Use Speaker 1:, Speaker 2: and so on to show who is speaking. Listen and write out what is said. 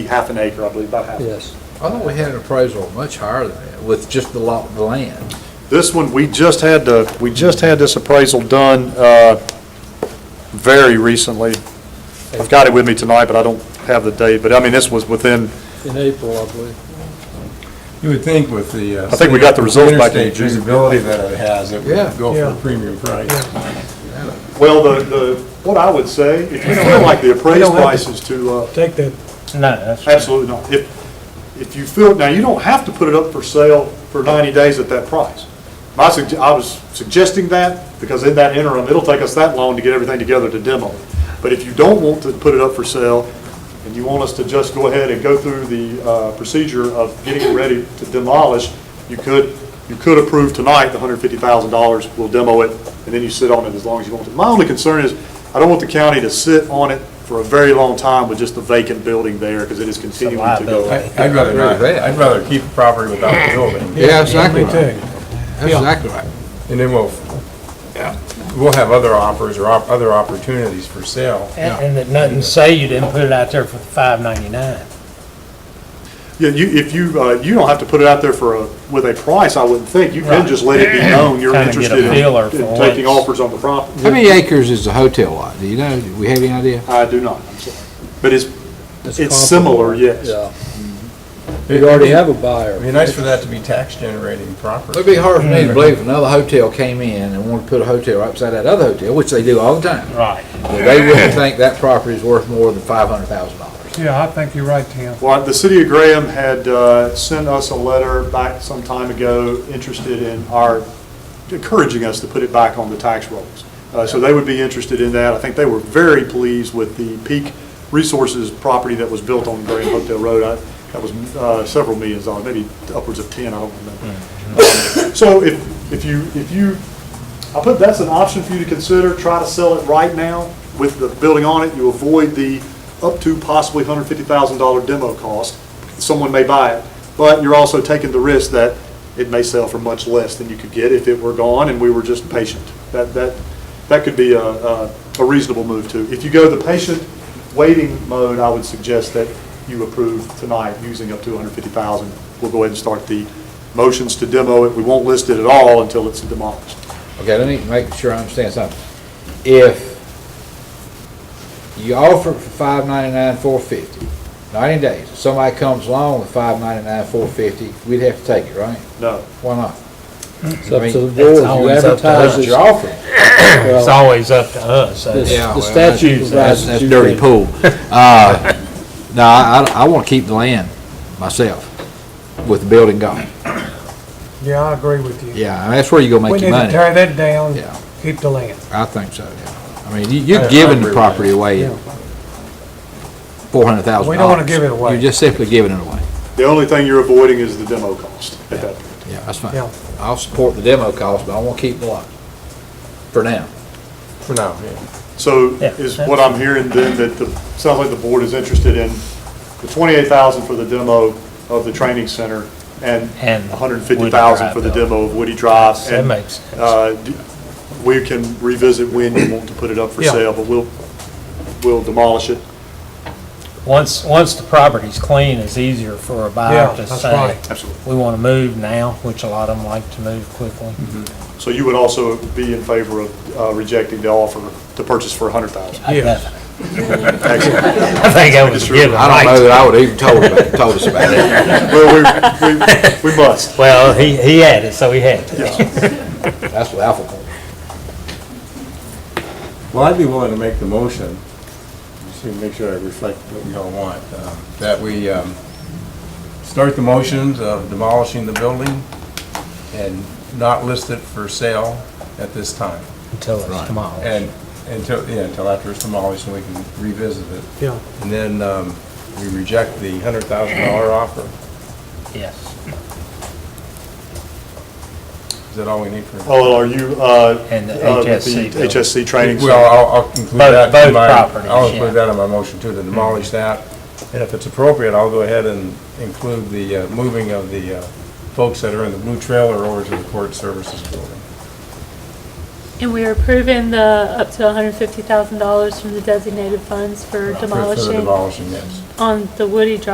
Speaker 1: half an acre, I believe, about half.
Speaker 2: Yes.
Speaker 3: I thought we had an appraisal much higher than that with just the lot of land.
Speaker 1: This one, we just had the, we just had this appraisal done uh, very recently. I've got it with me tonight, but I don't have the date, but I mean, this was within,
Speaker 2: In April, I believe.
Speaker 4: You would think with the. uh,
Speaker 1: I think we got the results back in
Speaker 4: interstate
Speaker 1: June.
Speaker 4: Visibility that it has, it
Speaker 3: Yeah.
Speaker 4: would go for
Speaker 2: Yeah.
Speaker 4: a premium price.
Speaker 1: well, the, the, what I would say, if you feel like the appraised
Speaker 2: don't have to-
Speaker 1: price is too, uh,
Speaker 2: Take that.
Speaker 5: No, that's.
Speaker 1: absolutely not. If, if you feel, now, you don't have to put it up for sale for 90 days at that price. My, sugge- I was suggesting that, because in that interim, it'll take us that long to get everything together to demo. it. But if you don't want to put it up for sale, and you want us to just go ahead and go through the uh, procedure of getting it ready to demolish, you could, you could approve tonight the $150,000, we'll demo it, and then you sit on it as long as you want to. My only concern is, I don't want the county to sit on it for a very long time with just a vacant building there, because it is continuing to go.
Speaker 5: liability.
Speaker 4: I- I'd rather
Speaker 3: Agree with
Speaker 4: not,
Speaker 3: that.
Speaker 4: I'd rather keep the property without the building,
Speaker 3: Yeah, exactly
Speaker 2: Me
Speaker 3: right.
Speaker 2: too.
Speaker 3: That's exactly right.
Speaker 4: and then we'll, we'll have other offers or op- other opportunities for sale.
Speaker 5: And and that nothing say you didn't put it out there for five ninety-nine.
Speaker 1: Yeah, you, if you, uh, you don't have to put it out there for a, with a price, I wouldn't think. You can
Speaker 5: Right.
Speaker 1: just let it be known you're
Speaker 5: Kinda get a
Speaker 1: interested in
Speaker 5: feeler for
Speaker 1: in taking
Speaker 5: what's-
Speaker 1: offers on the property.
Speaker 6: How many acres is the hotel lot? Do you know, do we have any idea?
Speaker 1: I do not, I'm sorry. But it's, it's similar, yes.
Speaker 2: Yeah. You already have a
Speaker 4: It'd be
Speaker 2: buyer.
Speaker 4: nice for that to be tax generating property.
Speaker 6: It'd be hard for me to believe if another hotel came in and wanted to put a hotel right beside that other hotel, which they do all the time,
Speaker 5: Right.
Speaker 6: that they wouldn't think that property is worth more than five hundred thousand dollars.
Speaker 7: Yeah, I think you're right, Tim.
Speaker 1: Well, the city of Graham had uh, sent us a letter back some time ago, interested in our, encouraging us to put it back on the tax rolls. Uh, So they would be interested in that. I think they were very pleased with the Peak Resources property that was built on Graham Hotel Road. I- That was uh, several millions dollars, maybe upwards of 10, I don't remember. Um, So if, if you, if you, I put, that's an option for you to consider, try to sell it right now with the building on it, you avoid the up to possibly hundred fifty thousand dollar demo cost, someone may buy it, but you're also taking the risk that it may sell for much less than you could get if it were gone and we were just patient. That, that, that could be a, a a reasonable move too. If you go the patient waiting mode, I would suggest that you approve tonight using up to hundred fifty thousand. We'll go ahead and start the motions to demo it, we won't list it at all until it's demolished.
Speaker 6: Okay, let me make sure I understand something. If you offer it for five ninety-nine, four fifty, ninety days, if somebody comes along with five ninety-nine, four fifty, we'd have to take it, right?
Speaker 1: No.
Speaker 6: Why not?
Speaker 2: It's up
Speaker 6: I mean,
Speaker 2: to the board.
Speaker 5: that's
Speaker 2: You
Speaker 5: always up to
Speaker 2: advertise
Speaker 5: us.
Speaker 6: That's
Speaker 2: it.
Speaker 6: your offer.
Speaker 5: It's
Speaker 2: Well,
Speaker 5: always up to us. so-
Speaker 2: The
Speaker 6: Yeah, well,
Speaker 2: the
Speaker 6: that's-
Speaker 2: statute
Speaker 6: That's,
Speaker 2: provides that
Speaker 6: that's
Speaker 2: you
Speaker 6: dirty
Speaker 2: can.
Speaker 6: pool. Uh, No, I, I want to keep the land myself with the building gone.
Speaker 7: Yeah, I agree with you.
Speaker 6: Yeah, I mean, that's where you go
Speaker 7: We
Speaker 6: make
Speaker 7: need
Speaker 6: your
Speaker 7: to
Speaker 6: money.
Speaker 7: tear that down,
Speaker 6: Yeah.
Speaker 7: keep the land.
Speaker 6: I think so, yeah. I mean, you-
Speaker 4: I- I
Speaker 6: you're giving
Speaker 4: agree
Speaker 6: the
Speaker 4: with
Speaker 6: property away
Speaker 7: Yeah.
Speaker 6: at four hundred thousand dollars.
Speaker 7: We don't wanna give it away.
Speaker 6: You're just simply giving it away.
Speaker 1: The only thing you're avoiding is the demo cost at that point.
Speaker 6: Yeah, that's fine.
Speaker 7: Yeah.
Speaker 6: I'll support the demo cost, but I want to keep the lot for now.
Speaker 4: For now, yeah.
Speaker 1: So
Speaker 5: Yeah.
Speaker 1: is what I'm hearing then, that the, sounds like the board is interested in the 28,000 for the demo of the training center and
Speaker 5: And
Speaker 1: 150,000 for the
Speaker 5: Woody Drive
Speaker 1: demo of Woody Drive.
Speaker 5: That
Speaker 1: And,
Speaker 5: makes sense.
Speaker 1: uh, d- We can revisit when you want to put it up for
Speaker 7: Yeah.
Speaker 1: sale, but we'll, we'll demolish it.
Speaker 5: Once, once the property's clean, it's easier for a
Speaker 7: Yeah,
Speaker 5: buyer to
Speaker 7: that's
Speaker 5: say,
Speaker 7: right.
Speaker 1: Absolutely.
Speaker 5: we want to move now, which a lot of them like to move quickly.
Speaker 1: So you would also be in favor of uh, rejecting the offer to purchase for 100,000?
Speaker 5: I
Speaker 7: Yes.
Speaker 5: bet-
Speaker 1: Excellent.
Speaker 5: I think I was
Speaker 1: Just
Speaker 5: given
Speaker 6: I don't know
Speaker 5: right.
Speaker 6: that I would even told about, told us about it.
Speaker 1: Well, we, we we must.
Speaker 5: Well, he, he had it, so he had to.
Speaker 6: That's what Alpha wants.
Speaker 4: Well, I'd be willing to make the motion, just to make sure I reflect what we all want, um, that we um, start the motions of demolishing the building and not list it for sale at this time.
Speaker 5: Until it's tomorrow.
Speaker 4: And until, yeah, until after it's demolished, and we can revisit it.
Speaker 7: Yeah.
Speaker 4: And then um, we reject the hundred thousand dollar offer.
Speaker 5: Yes.
Speaker 4: Is that all we need for?
Speaker 1: Oh, are you, uh,
Speaker 5: And the
Speaker 1: uh, with
Speaker 5: HSC
Speaker 1: the HSC training? center?
Speaker 4: Well, I'll- I'll include
Speaker 5: Both-
Speaker 4: that
Speaker 5: both
Speaker 4: in my,
Speaker 5: properties,
Speaker 4: I'll include
Speaker 5: yeah.
Speaker 4: that in my motion too, to demolish that. And if it's appropriate, I'll go ahead and include the uh, moving of the uh, folks that are in the blue trailer over to the court services building.
Speaker 8: And we are approving the up to $150,000 from the designated funds for
Speaker 4: For- For the
Speaker 8: demolishing
Speaker 4: demolishing, yes.
Speaker 8: on the Woody Drive